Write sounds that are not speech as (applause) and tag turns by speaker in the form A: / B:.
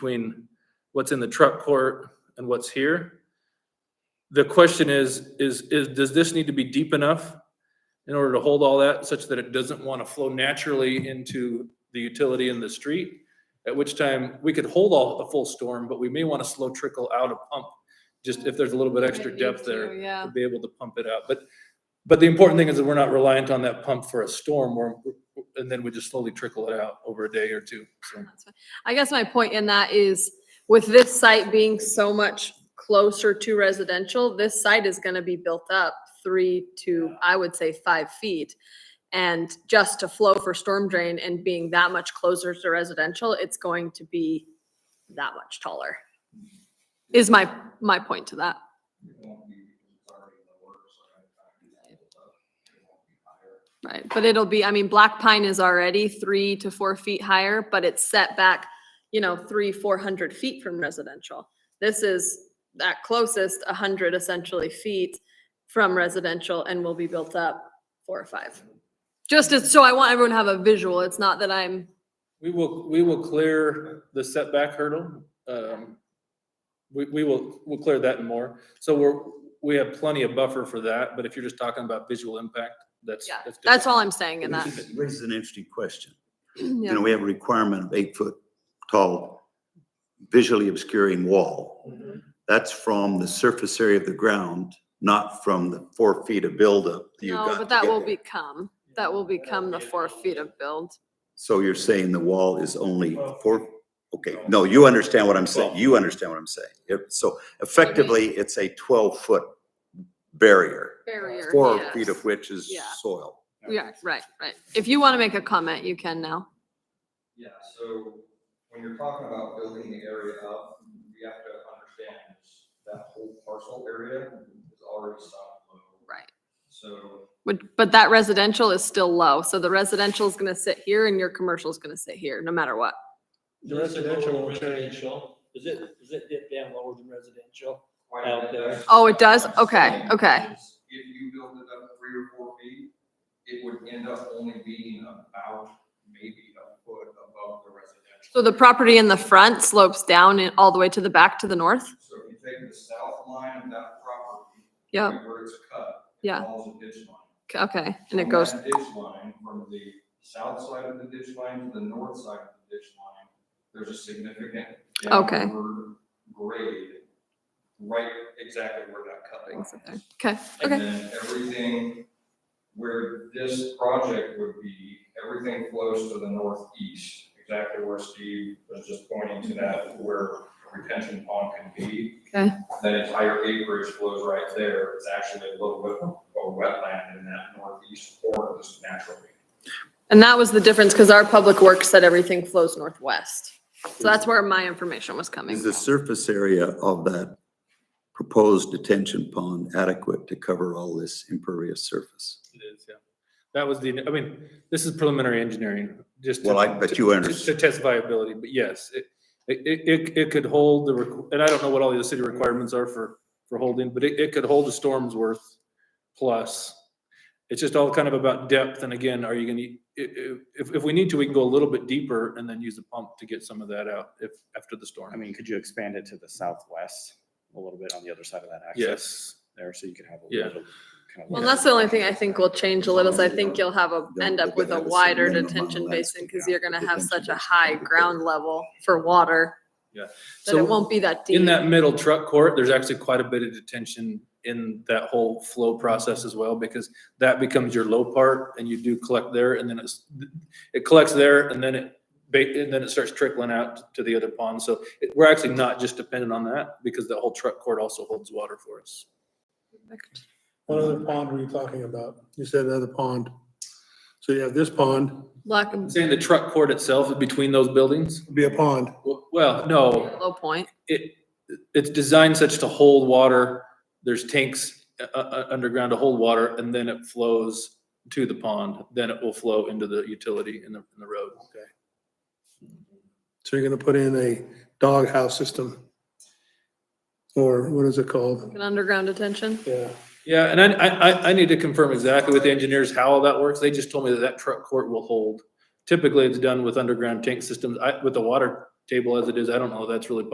A: between what's in the truck court and what's here. The question is, is, is, does this need to be deep enough in order to hold all that such that it doesn't want to flow naturally into the utility in the street? At which time, we could hold all the full storm, but we may want to slow trickle out a pump, just if there's a little bit extra depth there
B: Yeah,
A: to be able to pump it out. But, but the important thing is that we're not reliant on that pump for a storm or, and then we just slowly trickle it out over a day or two. So
B: that's fine. I guess my point in that is with this site being so much closer to residential, this site is gonna be built up three to, I would say, five feet. And just to flow for storm drain and being that much closer to residential, it's going to be that much taller. Is my, my point to that. Right, but it'll be, I mean, black pine is already three to four feet higher, but it's set back, you know, three, four hundred feet from residential. This is that closest, a hundred essentially feet from residential and will be built up four or five. Just as, so I want everyone to have a visual. It's not that I'm,
A: we will, we will clear the setback hurdle. Um, We, we will, we'll clear that and more. So we're, we have plenty of buffer for that, but if you're just talking about visual impact, that's.
B: yeah,
A: different.
B: that's all I'm saying in that. (clears throat)
C: It Raises an interesting question. You
B: Yeah.
C: know, we have a requirement of eight foot tall visually obscuring wall.
A: Mhm.
C: That's from the surface area of the ground, not from the four feet of buildup. you've
B: No,
C: got
B: but
C: to
B: that
C: get
B: will
C: there.
B: become, that will become the four feet of build.
C: So you're saying the wall is only
A: Twelve
C: four, okay, no, you understand what I'm saying,
A: Twelve.
C: you understand what I'm saying. It- So effectively, it's a twelve foot barrier,
B: Barrier.
C: four
B: yes.
C: feet of which is
B: Yeah.
C: soil.
B: Yeah, right, right. If you want to make a comment, you can now.
D: Yeah, so when you're talking about building the area up, we have to understand is that whole parcel area is already soft low.
B: Right.
D: So,
B: But, but that residential is still low, so the residential is gonna sit here and your commercial is gonna sit here, no matter what.
E: The residential will change. Is it, is it dip down lower than residential?
D: why
E: Out
D: not?
E: there.
B: Oh, it does? Okay, okay.
D: If you build it up three or four feet, it would end up only being about maybe a foot above the residential.
B: So the property in the front slopes down and all the way to the back to the north?
D: So if you take the south line of that property.
B: Yeah,
D: Where it's cut. it
B: Yeah.
D: Follows a ditch line.
B: c- okay, and it
D: from
B: goes,
D: that Ditch line, from the south side of the ditch line to the north side of the ditch line, there's a significant.
B: Okay.
D: downward Grade, right exactly where that cut line
B: brings
D: is.
B: it there. okay,
D: And
B: okay,
D: then everything where this project would be, everything flows to the northeast, exactly where Steve was just pointing to that, where a retention pond can be.
B: Okay.
D: That entire acreage flows right there. It's actually a little bit of a wetland in that northeast corner just naturally.
B: and that was the difference, because our public works said everything flows northwest. So that's where my information was coming
C: Is the
B: from.
C: surface area of that proposed detention pond adequate to cover all this impervious surface?
A: It is, yeah. That was the, I mean, this is preliminary engineering, just. to-
C: Well, I bet you
A: to-
C: understand.
A: To test viability, but yes, it, it, it- it, it could hold the, requ- and I don't know what all the other city requirements are for, for holding, but it, it could hold a storm's worth plus. It's just all kind of about depth, and again, are you gonna, i- i- if, if we need to, we can go a little bit deeper and then use a pump to get some of that out if, after the
F: I
A: storm.
F: mean, could you expand it to the southwest a little bit on the other side of that access
A: Yes,
F: there, so you could have a
A: Yeah.
F: little? kind of
B: Well,
F: like-
B: that's the only thing I think will change a little, is I think you'll have a, end up with a wider detention basin, because you're gonna have such a high ground level for water.
A: Yeah.
B: That it
A: So
B: won't be that deep.
A: in that middle truck court, there's actually quite a bit of detention in that whole flow process as well, because that becomes your low part and you do collect there and then it's, it collects there and then it, ba- and then it starts trickling out to the other pond. So it- we're actually not just dependent on that because the whole truck court also holds water for us.
G: What other pond were you talking about? You said another pond. So you have this pond,
B: Black,
A: Saying the truck court itself is between those buildings?
G: would be a pond.
A: Well- Well, no,
B: low point.
A: it, it's designed such to hold water. There's tanks uh, uh, underground to hold water and then it flows to the pond. Then it will flow into the utility in the, in the road.
G: So you're gonna put in a doghouse system. Or what is it called?
B: An underground detention?
G: Yeah,
A: Yeah, and I, I, I- I need to confirm exactly with the engineers how all that works. They just told me that that truck court will hold. Typically, it's done with underground tank systems. I, with the water table as it is, I don't know, that's really